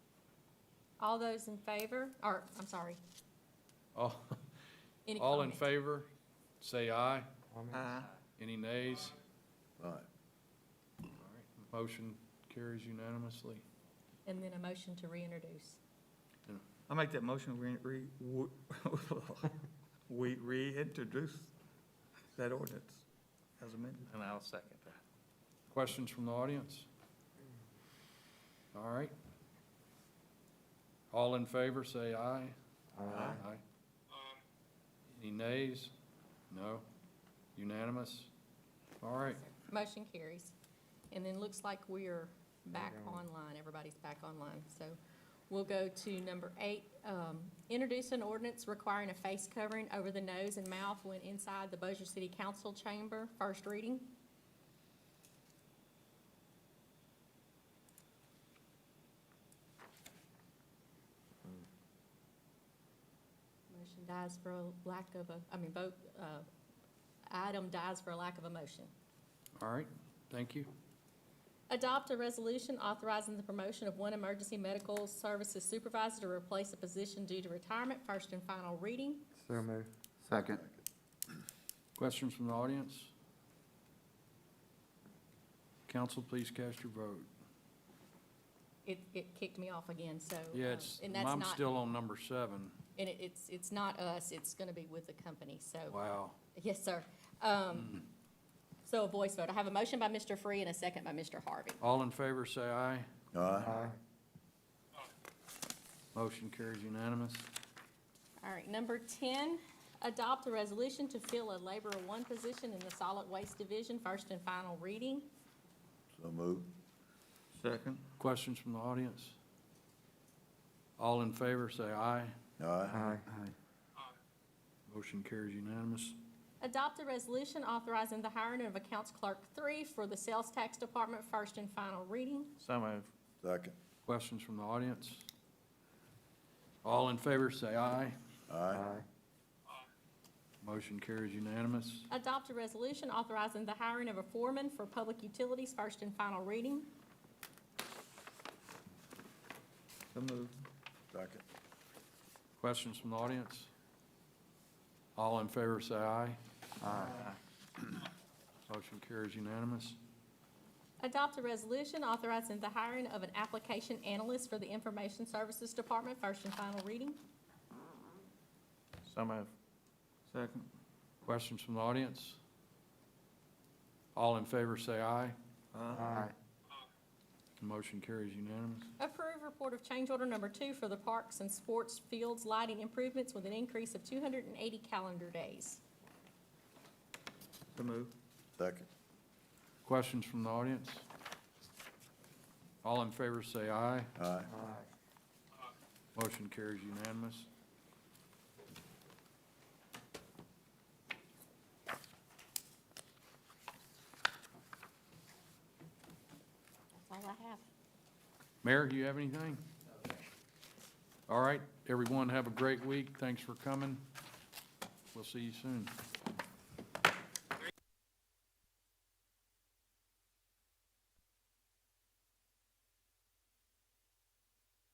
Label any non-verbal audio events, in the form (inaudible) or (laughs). All those in favor, or, I'm sorry, All, any all in comment? favor, say aye. Aye. Any nays? All right. Motion carries unanimously. And then a motion to reintroduce. I make that motion, we, re, we- (laughs) we reintroduce that ordinance as amended. And I'll second that. Questions from the audience? All right. All in favor, say aye. Aye. Any nays? No? Unanimous? All right. Motion carries. And then looks like we are back online, everybody's back online. So we'll go to number eight, um, introduce an ordinance requiring a face covering over the nose and mouth when inside the Bossier City Council chamber, first reading. Motion dies for a lack of a, I mean, vote, uh, item dies for a lack of a motion. All right. Thank you. Adopt a resolution authorizing the promotion of one emergency medical services supervisor to replace a position due to retirement, first and final reading. So moved. Second. Questions from the audience? Council, please cast your vote. It, it kicked me off again, so. Yeah, um, it's, And that's I'm not, still on number seven. and it- it's, it's not us, it's gonna be with the company, so. Wow. Mm-hmm. Yes, sir. Um, so a voice vote. I have a motion by Mr. Free and a second by Mr. Harvey. All in favor, say aye. Aye. Aye. Motion carries unanimous. All right, number ten, adopt a resolution to fill a laborer one position in the solid waste division, first and final reading. So moved. Second. Questions from the audience? All in favor, say aye. Aye. Aye. Motion carries unanimous. Adopt a resolution authorizing the hiring of accounts clerk three for the sales tax department, first and final reading. So moved. Second. Questions from the audience? All in favor, say aye. Aye. Motion carries unanimous. Adopt a resolution authorizing the hiring of a foreman for public utilities, first and final reading. So moved. Second. Questions from the audience? All in favor, say aye. Motion carries unanimous. Adopt a resolution authorizing the hiring of an application analyst for the information services department, first and final reading. So moved. Second. Questions from the audience? All in favor, say aye. Uh, Aye. Motion carries unanimous. Approve report of change order number two for the parks and sports fields lighting improvements with an increase of two hundred and eighty calendar days. So moved. Second. Questions from the audience? All in favor, say aye. Aye. Motion carries unanimous. That's all I have. Mayor, you have anything? All right, everyone, have a great week. Thanks for coming. We'll see you soon.